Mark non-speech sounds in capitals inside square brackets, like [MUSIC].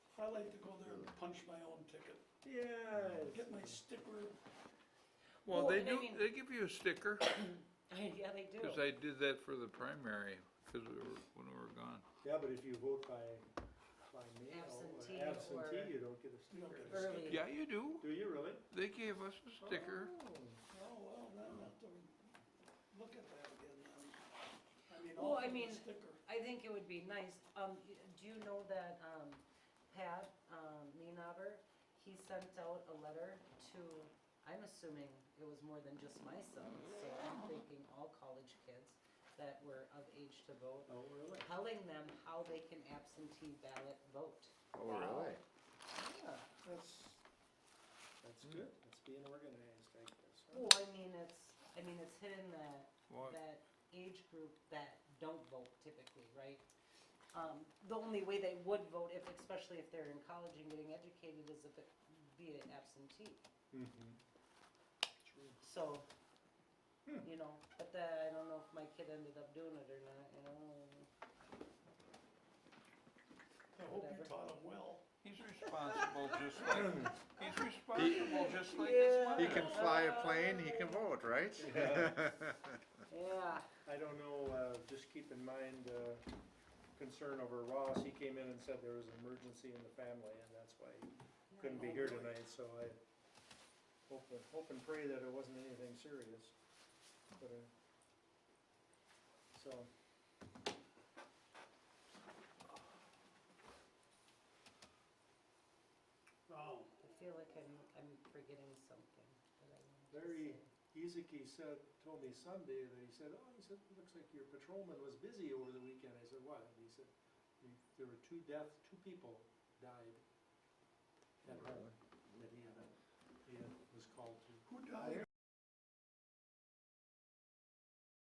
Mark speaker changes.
Speaker 1: like to go there and punch my own ticket,
Speaker 2: Yes.
Speaker 1: get my sticker.
Speaker 3: Well,
Speaker 4: Well,
Speaker 3: they
Speaker 4: and I
Speaker 3: do,
Speaker 4: mean-
Speaker 3: they give you a sticker,
Speaker 4: [LAUGHS] Yeah, they do.
Speaker 3: cause I did that for the primary, cause we were, when we were gone.
Speaker 2: Yeah, but if you vote by, by mail
Speaker 4: Absentee
Speaker 2: or absentee,
Speaker 4: or-
Speaker 2: you don't get a
Speaker 1: You don't
Speaker 2: sticker.
Speaker 1: get a
Speaker 4: Early.
Speaker 1: sticker.
Speaker 3: Yeah, you do.
Speaker 2: Do you really?
Speaker 3: They gave us a sticker.
Speaker 2: Oh.
Speaker 1: Oh, well, then I'll have to look at that again then. I mean,
Speaker 4: Well,
Speaker 1: I'll
Speaker 4: I
Speaker 1: put
Speaker 4: mean-
Speaker 1: a sticker.
Speaker 4: I think it would be nice, um, y- do you know that, um, Pat, um, Meanover, he sent out a letter to, I'm assuming it was more than just my son, so I'm thinking all college kids that were of age to vote,
Speaker 2: Oh, really?
Speaker 4: telling them how they can absentee ballot vote.
Speaker 5: Oh, really?
Speaker 2: Yeah, that's, that's good. That's being organized, I guess. huh?
Speaker 4: Well, I mean, it's, I mean, it's hitting that
Speaker 3: What?
Speaker 4: that age group that don't vote typically, right? Um, the only way they would vote if, especially if they're in college and getting educated, is if it be an absentee,
Speaker 1: Mm-hmm.
Speaker 2: Mhm.
Speaker 4: so,
Speaker 2: Hmm.
Speaker 4: you know, but the, I don't know if my kid ended up doing it or not, you know?
Speaker 1: I hope you
Speaker 4: whatever.
Speaker 1: taught them well.
Speaker 3: He's responsible just like, he's responsible just like his
Speaker 4: Yeah.
Speaker 3: mom.
Speaker 5: He can fly a plane, he can vote, right? [LAUGHS]
Speaker 4: Yeah,
Speaker 2: I don't know, uh, just keep in mind, uh, concern over Ross, he came in and said there was an emergency in the family, and that's why he couldn't be here tonight, so I hope, and- hope and pray that it wasn't anything serious, but, uh, so.
Speaker 1: Oh,
Speaker 4: I feel like I'm, I'm forgetting something that I wanted to
Speaker 2: Very-
Speaker 4: say.
Speaker 2: Ezeki said, told me Sunday that he said, oh, he said, it looks like your patrolman was busy over the weekend. I said, what? And he said, "We- there were two deaths, two people